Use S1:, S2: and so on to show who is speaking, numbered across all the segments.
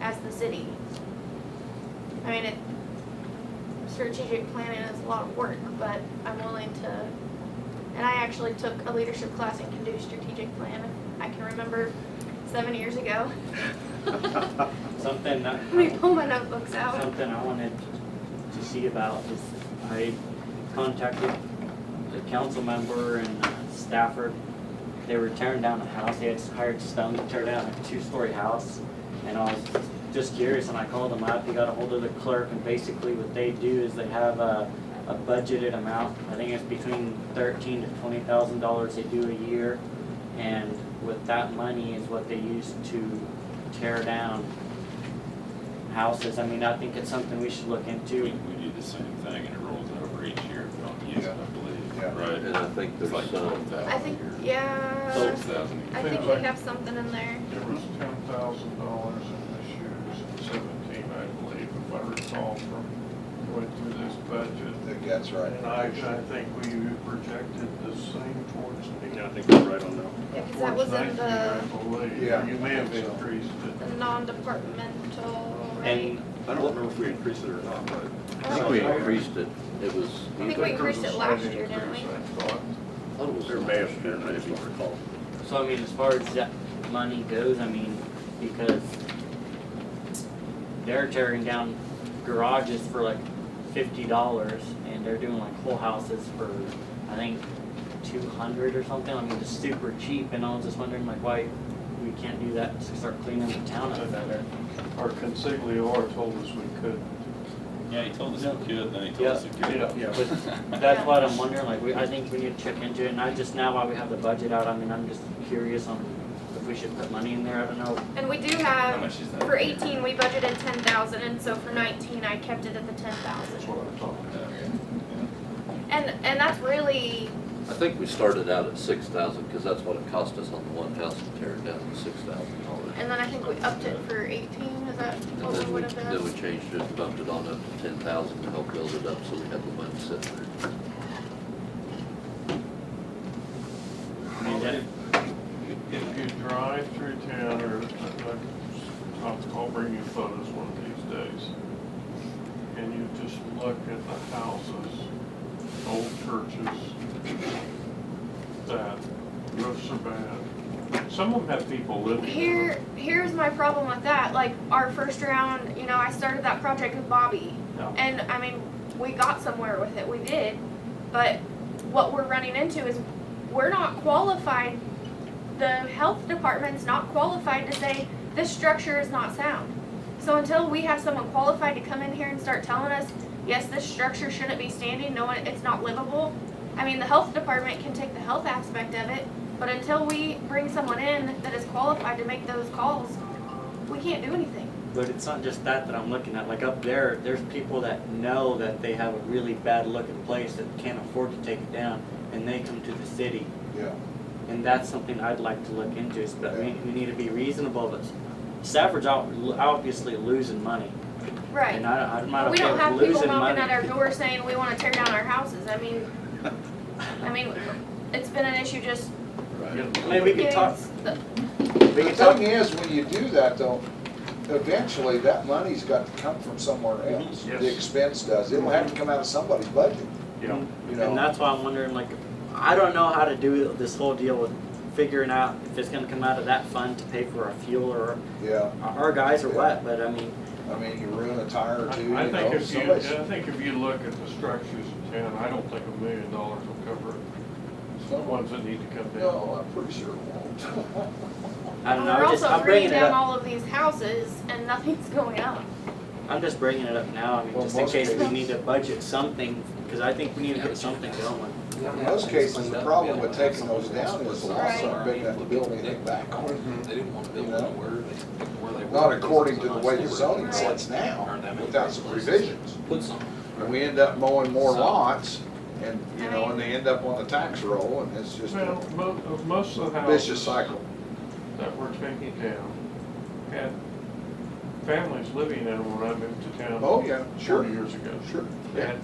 S1: as the city. I mean, it, strategic planning is a lot of work, but I'm willing to, and I actually took a leadership class and can do strategic plan. I can remember seven years ago,
S2: Something that,
S1: let me pull my notebooks out.
S2: something I wanted to see about is I contacted the council member in Stafford. They were tearing down a house, they had hired stone to tear down a two-story house. And I was just curious and I called them up, they got a hold of the clerk and basically what they do is they have a, a budgeted amount. I think it's between thirteen to twenty thousand dollars they do a year. And with that money is what they use to tear down houses. I mean, I think it's something we should look
S3: We,
S2: into.
S3: we do the same thing and it rolls over each year if we don't use it, I
S4: Yeah.
S3: believe, right?
S5: And I think
S3: It's
S5: there's
S3: like
S5: some,
S3: twelve thousand
S1: I
S3: a
S1: think,
S3: year.
S1: yeah,
S3: Twelve thousand a
S1: I
S3: year.
S1: think we have something in there.
S4: There was ten thousand dollars in this year's
S3: Seventeen, I believe, if I recall from
S4: going through this budget.
S6: think that's right.
S4: And I, I think we projected the same towards the.
S7: Yeah, I think we're right on that.
S1: Yeah, 'cause that was in
S4: Towards 19, I
S1: the,
S4: believe.
S6: Yeah.
S4: You may have increased it.
S1: the non-departmental, right?
S2: And
S7: I don't remember if we increased it or not, but
S5: I think we increased it, it
S1: I
S5: was,
S1: think
S5: either-
S1: we increased it last year, didn't we?
S4: Increase, I thought.
S5: I thought it was.
S7: there may have been, I just don't recall.
S2: So I mean, as far as that money goes, I mean, because they're tearing down garages for like fifty dollars and they're doing like whole houses for, I think, two hundred or something. I mean, just super cheap and I was just wondering like why we can't do that to start cleaning the town up better.
S4: Our consigliere told us we could.
S3: Yeah, he told us he could, then he told
S2: Yeah.
S3: us he couldn't.
S4: Yeah.
S2: But that's what I'm wondering, like, we, I think we need to check into it and I just now while we have the budget out, I mean, I'm just curious on if we should put money in there. I don't know
S1: And we do
S3: How
S1: have,
S3: much is that?
S1: for eighteen, we budgeted ten thousand, and so for nineteen, I kept it at the ten
S4: That's
S1: thousand.
S4: what I'm talking about.
S1: And, and that's really,
S5: I think we started out at six thousand, because that's what it cost us on the one house to tear it down, six thousand dollars.
S1: and then I think we upped it for eighteen, is that
S5: And
S1: what we
S5: then we,
S1: would have
S5: then we
S1: been?
S5: changed it, bumped it on up to ten thousand to help build it up, so we had the money set there.
S2: mean, that-
S4: If you drive through town, or, I'll, I'll bring you photos one of these days, and you just look at the houses, old churches, that, roofs are bad. Some of them have people living in them.
S1: Here, here's my problem with that, like, our first round, you know, I started that project with Bobby,
S4: Yeah.
S1: and, I mean, we got somewhere with it, we did, but what we're running into is, we're not qualified, the health department's not qualified to say, this structure is not sound. So until we have someone qualified to come in here and start telling us, yes, this structure shouldn't be standing, no, it- it's not livable. I mean, the health department can take the health aspect of it, but until we bring someone in that is qualified to make those calls, we can't do anything.
S2: But it's not just that that I'm looking at. Like up there, there's people that know that they have a really bad looking place that can't afford to take it down, and they come to the city.
S6: Yeah.
S2: And that's something I'd like to look into. Is but we, we need to be reasonable. But Stafford's out, obviously losing money,
S1: Right.
S2: and I, I'm not
S1: We
S2: okay
S1: don't
S2: with
S1: have people
S2: losing
S1: knocking
S2: money.
S1: at our door saying we wanna tear down our houses, I mean, I mean, it's been an issue just
S2: I mean, we can
S1: getting
S2: talk.
S1: s- the
S6: The thing is, when you do that though, eventually that money's got to come from somewhere else.
S4: Yes.
S6: The expense does. It'll have to come out of somebody's budget,
S4: Yeah.
S6: you
S2: And
S6: know?
S2: that's why I'm wondering, like, I don't know how to do this whole deal with figuring out if it's gonna come out of that fund to pay for our fuel or
S6: Yeah,
S2: our guys or what. But I mean,
S6: I mean, you ruin a tire or two, you
S4: I I think
S6: know,
S4: if you,
S6: somebody's,
S4: I think if you look at the structures in town, I don't think a million dollars will cover it. The ones that need to come down.
S6: no, I'm pretty sure it won't.
S2: I don't know.
S1: We're
S2: I'm just,
S1: also
S2: I'm bringing
S1: bringing
S2: it
S1: down
S2: up.
S1: all of these houses and nothing's going up.
S2: I'm just bringing it up now, I mean,
S6: Well,
S2: just in
S6: most
S2: case we
S6: cases-
S2: need to budget something, because I think we need to get something going.
S6: In most cases, the problem with taking those down is the loss of big enough to build anything back on.
S8: They didn't want to build
S6: You know?
S8: anywhere, they, where they were.
S6: Not according to the way the
S8: They were-
S6: zoning
S1: Right.
S6: sits now, without some revisions.
S8: Put some.
S6: And we end up mowing more
S8: So-
S6: lots and, you know, and they end up on the tax roll and it's just
S4: Well,
S6: a
S4: mo- of most of the houses.
S6: vicious cycle.
S4: that we're taking down had families living in them when I moved to town.
S6: Oh, yeah, sure.
S4: Forty years ago.
S6: Sure.
S4: And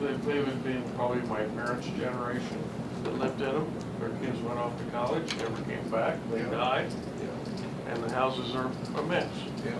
S4: they, they would have been probably my parents' generation that lived in them. Their kids went off to college, never came back, they
S6: Yeah.
S4: died,
S6: Yeah.
S4: and the houses are a mess.
S6: Yeah.